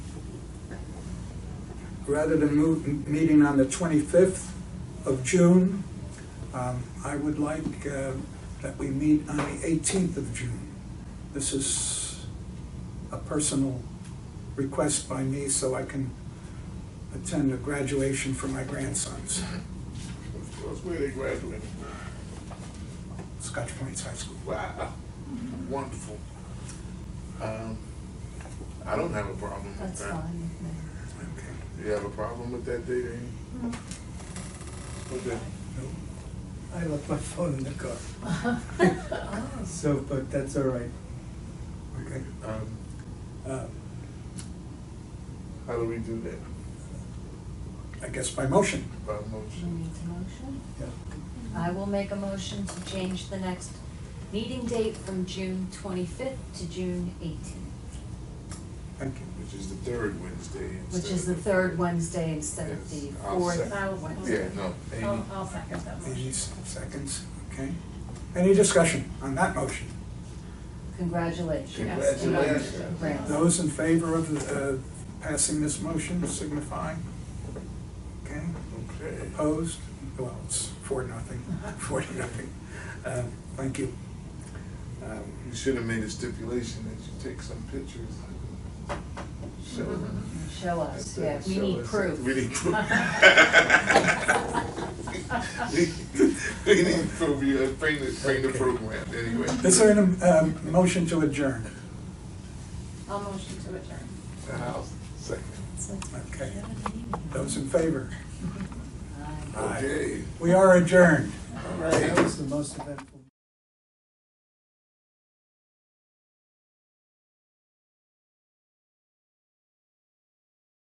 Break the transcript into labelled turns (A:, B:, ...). A: rather than move, m- meeting on the 25th of June, um, I would like uh, that we meet on the 18th of June. This is a personal request by me so I can attend a graduation for my grandsons,
B: That's where they graduated.
A: Scotch Plains High School.
B: Wow, wonderful. Um, I don't have a problem with that.
C: That's fine. with
A: Okay.
B: You have a problem with that date, Amy?
C: No. Mm-hmm.
B: Okay.
D: I left my phone in the car,
C: me.
D: so, but that's all right.
A: Okay.
B: Um,
A: Uh,
B: how do we do that?
A: I guess by motion.
B: By
C: Do
B: motion?
C: we need a motion?
D: Yeah.
C: I will make a motion to change the next meeting date from June twenty-fifth to June eighteenth,
A: Thank you.
B: Which is the third Wednesday instead
C: which is
B: of
C: the third Wednesday instead of the
B: Yes, I'll
C: fourth.
B: second.
E: I will
B: Yeah,
E: second.
B: no, Amy,
E: I'll,
C: Oh,
E: I'll second that
A: Eighty
E: motion.
A: s- seconds, okay. Any discussion on that motion?
C: Congratulations.
E: Yes.
B: Congratulations.
C: Grants.
A: Those in favor of uh, passing this motion signify. Okay,
B: okay.
A: opposed? Well, it's four, nothing, four to nothing. Uh, Thank you. Um,
B: You should have made a stipulation that you take some pictures. Show them.
C: Show us, yeah, we need proof.
B: We need proof. We- We need proof, you have- bring the, bring the program, anyway.
A: Is there a um, motion to adjourn?
E: I'll motion to adjourn.
B: The house, second.
A: Okay. Those in favor?
C: Aye.
A: Aye.
B: Okay,
A: We are adjourned.
B: all right.
D: That was the most eventful.